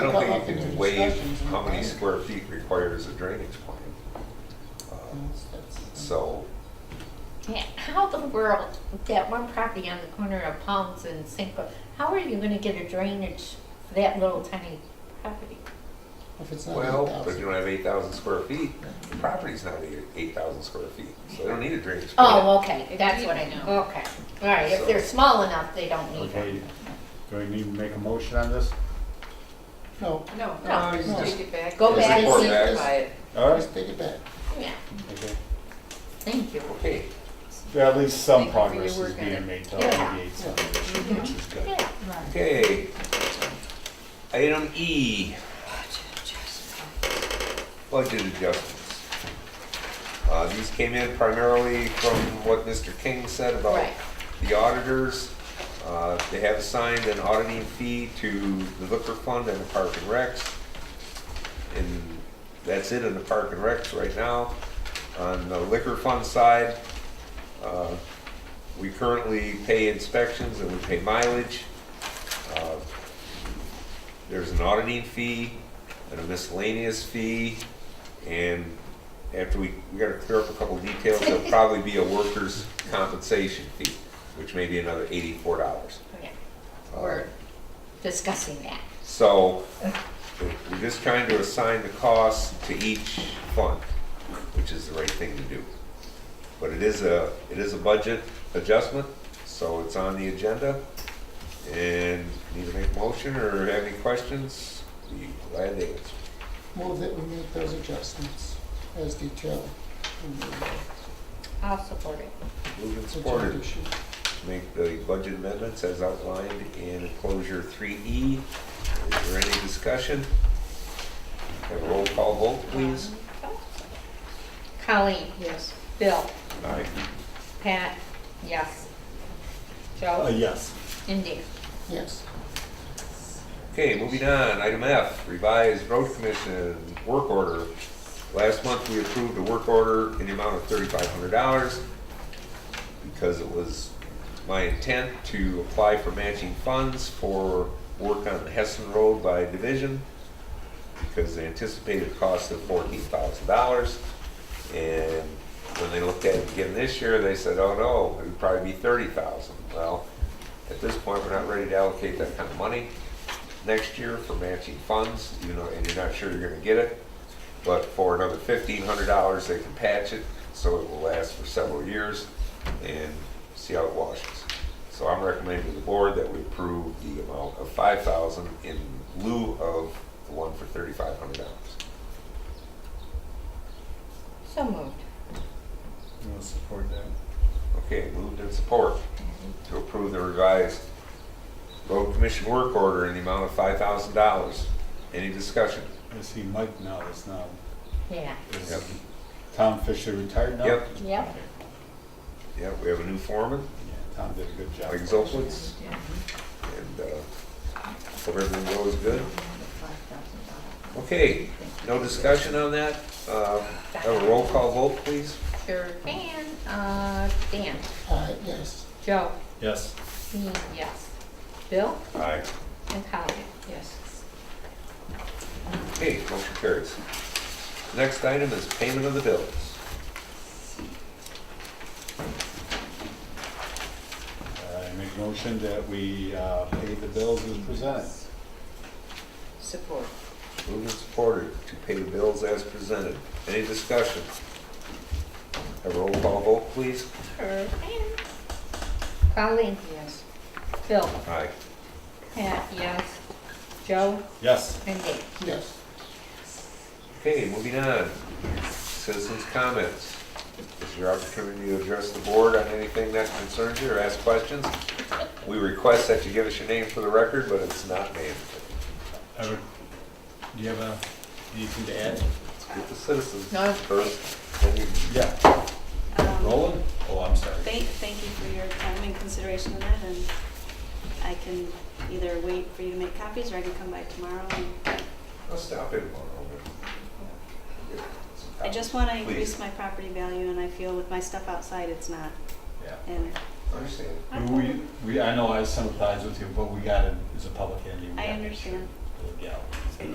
I don't Well, think you there's can waive discussions in how many the square feet required as a drainage plan. Uh, So, Yeah, How the world, that one property on the corner of Palms and Cinco, how are you gonna get a drainage for that little tiny property? If it's not well, eight if you thousand. don't have eight thousand square feet, the property's not eight thousand square feet, so they don't need a drainage plan. Oh, okay, that's what I, No. okay, all right, if they're small enough, they don't need Okay, it. do I need to make a motion on this? No, No, No, no, just no. take it back. Go back and Just see if Simplify it. All right, just take it back. Yeah, okay. thank you. Okay, Yeah, at least some Thank you progress for your is work on it. being made to Yeah. alleviate some, Yeah. which is good. Yeah, okay. Item E, budget adjustments. Uh, these came in primarily from what Mr. King said about Right. the auditors. Uh, they have assigned an auditing fee to the liquor fund and the park and recs. And that's it in the park and recs right now. On the liquor fund side, uh, we currently pay inspections and we pay mileage. Uh, There's an auditing fee and a miscellaneous fee, and after we, we gotta clear up a couple details, there'll probably be a workers' compensation fee, which may be another eighty-four dollars. Uh, yeah, we're discussing that. So, we're just trying to assign the costs to each fund, which is the right thing to do. But it is a, it is a budget adjustment, so it's on the agenda. And need to make a motion or have any questions? Be glad to answer. Move that we make those adjustments as detailed in the uh, I'll support it. Moved and agenda supported. sheet. Make the budget amendments as outlined in enclosure three E. Is there any discussion? Have a roll call vote, please. Colleen, Yes. Bill, Aye. Pat, yes. Uh, Joe, yes. Indy. Yes, Okay, moving on, item F, revised road commission work order. Last month, we approved a work order in the amount of thirty-five hundred dollars because it was my intent to apply for matching funds for work on Hessen Road by division because the anticipated cost of fourteen thousand dollars. And when they looked at it again this year, they said, oh no, it would probably be thirty thousand. Well, at this point, we're not ready to allocate that kind of money next year for matching funds, you know, and you're not sure you're gonna get it. But for another fifteen hundred dollars, they can patch it, so it will last for several years and see how it washes. So I'm recommending to the board that we approve the amount of five thousand in lieu of the one for thirty-five hundred dollars. So moved. I'll support that. Okay, moved in support to approve the revised road commission work order in the amount of five thousand dollars. Any discussion? I see Mike now is now, Yeah, Yep. is Tom Fisher retired now? Yep. yep. Yeah, we have a new foreman. Yeah, Tom did a good job. Mike Zolkowitz. And uh, hope everything goes good. Okay, no discussion on that. Uh, Have a roll call vote, please. Sure can. Uh, Dan, uh, yes, Joe, Yes. me, yes. Bill Aye. and Colleen. Yes. Okay, motion carries. Next item is payment of the bills. I make motion that we uh, pay the bills as presented. Support. Moved and supported to pay the bills as presented. Any discussion? Have a roll call vote, please. Sure can. Colleen, Yes. Bill, Aye. Pat, yes. Joe Yes. and Dave. yes. Okay, moving on. Citizens' comments. This is your opportunity to address the board on anything that concerns you or ask questions. We request that you give us your name for the record, but it's not mandatory. Ever, do you have a, anything to add? It's with the citizens No. first. then you- Yeah. Um, Roland? Oh, I'm sorry. Thank, thank you for your time and consideration of that, and I can either wait for you to make copies, or I can come by tomorrow. and- I'll stop in tomorrow. I just want to increase Please. my property value, and I feel with my stuff outside, it's not. Yeah. And Understand. We, we, I know I sympathize with you, but we gotta, it's a public entity. we I gotta make understand. sure the legality.